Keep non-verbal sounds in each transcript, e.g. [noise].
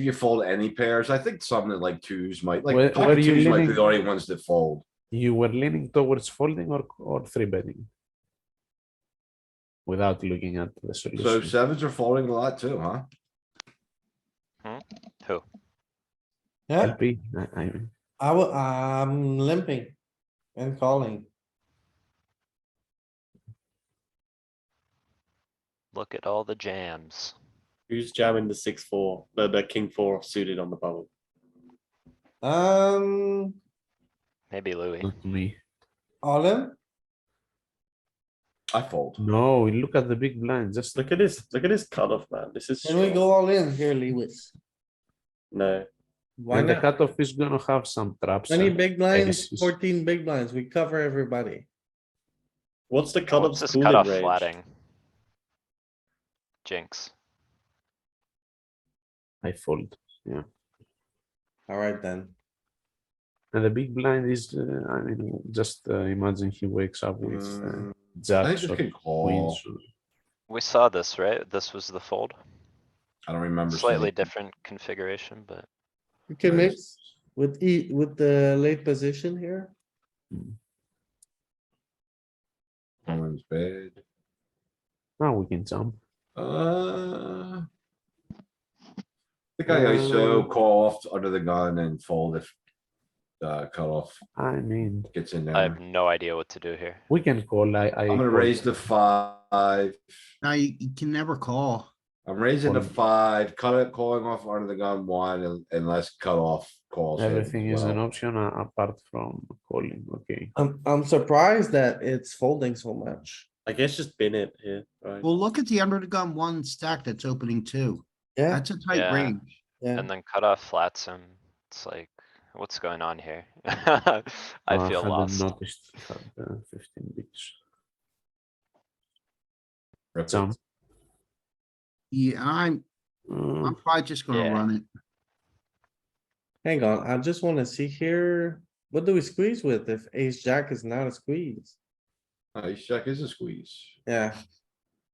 You fold any pairs. I think something like twos might, Where- like, where pocket are you twos might be leaning? the only ones that fold. You were leaning towards folding or, or three betting? Without looking at the So uh, solution. sevens are folding a lot too, huh? Yeah, LP, I, I mean, I will, I'm limping and calling. Look at all the jams. Who's jamming the six four, the, the king four suited on the bubble? Um, Maybe Louis. not me. all in, I fold. No, look at the big blind, just look. Look at this, look at this cutoff, man. This is. can we shit. go all in here, Lewis? No, Why And the not? cutoff is gonna have some traps. uh, Twenty and- big blinds, aces. fourteen big blinds, we cover everybody. what's the Oh, cutoff? What's this cooling cutoff range? flatting? Jinx. I fold. Alright then, And the big blind is, uh, I mean, just uh, imagine he wakes up with uh, Mm, I think jacks this or could call. queens. or- We saw this, right? This was the fold. I don't remember. Slightly seeing- different configuration, but you can Nice. mix with E, with the late position here. One's bad. Now Ah, we can jump. Uh. I think I Uh, ISO call off under the gun and fold if. Uh, cutoff I mean, gets in I there. have no idea what to do here. we can call, I, I. I'm gonna raise the five. Now you, you can never call. I'm raising the One. five, cut it, calling off under the gun one and- unless cutoff calls. in Everything as is an well. option uh, apart from calling, okay. I'm, I'm surprised that it's folding so much. I guess just bin it here, right? Well, look at the under the gun one stack that's opening two. Yeah, That's a tight Yeah. range. yeah. And then cut off flats him. It's like, what's going on here? [laughs] I Uh, feel hadn't lost. Noticed, he had, uh, fifteen bigs. Rip it. Jump. Yeah, I'm, Uh, I'm probably just gonna Yeah. run it. Hang on, I just wanna see here, what do we squeeze with if ace jack is not a squeeze? Ace jack is a squeeze. Yeah,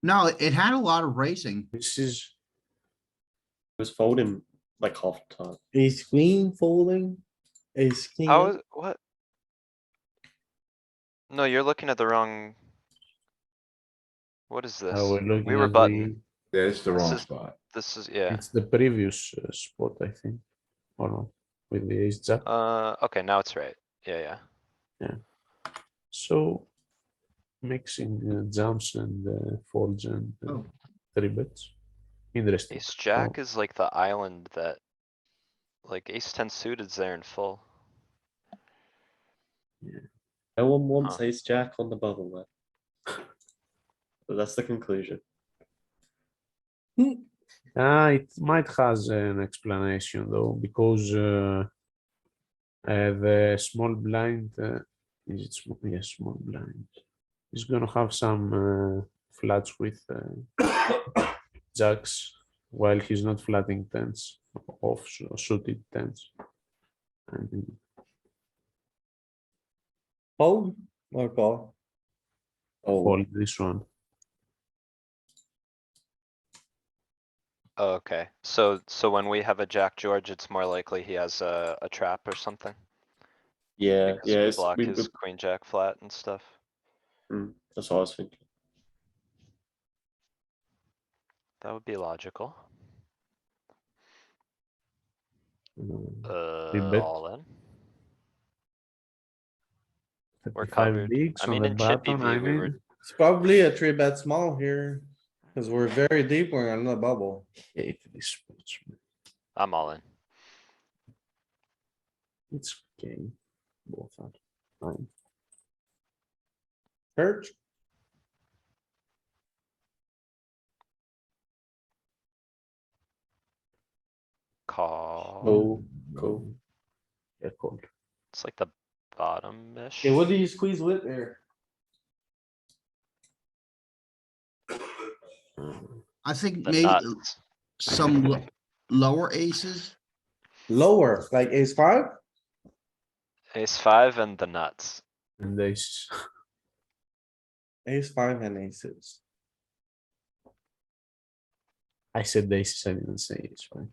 No, it had a lot of racing. This is, It was folding like half the time. ace queen folding, ace king. How is, what? No, you're looking at the wrong. What is this? oh, we're looking We were at button. the- Yeah, it's the This wrong is- spot. This is, yeah. It's the previous uh, spot, I think, or not, with the ace jack, Uh, okay, now it's right. Yeah, yeah. so. Mixing uh, jumps and uh, folds and uh, Oh. three bets. Interesting. Ace jack is like the island that. Like ace ten suited's there in full. No one wants Huh. ace jack on the bubble, man. [laughs] But That's the conclusion. Ah, it might has an explanation though, because uh, uh, the small blind uh, is it small? Yes, small blind is gonna have some uh, flats with uh, [coughs] jacks while he's not flatting tens off su- suited tens. I mean, Fold or call? fold this one. Oh, Okay, so, so when we have a Jack George, it's more likely he has a, a trap or something? Yeah, Because yeah, we it's- block we- we- his queen jack flat and stuff. mm, that's what I was thinking. That would be logical. Uh, Uh, bet. all in. We're 35 covered. bigs I on mean, the in Chippy button, I V, we were- mean, It's probably a three bet small here, cause we're very deep, we're on the bubble. hate this spot, man. I'm all in. It's okay. Both are fine. Church, Call. Cool, cool. Yeah, cold. It's like the bottom-ish. okay, what do you squeeze with here? I think The maybe nuts. some lo- lower aces. Lower, like ace five? Ace five and the nuts. And this, Ace five and aces. I said this, I didn't say it's fine.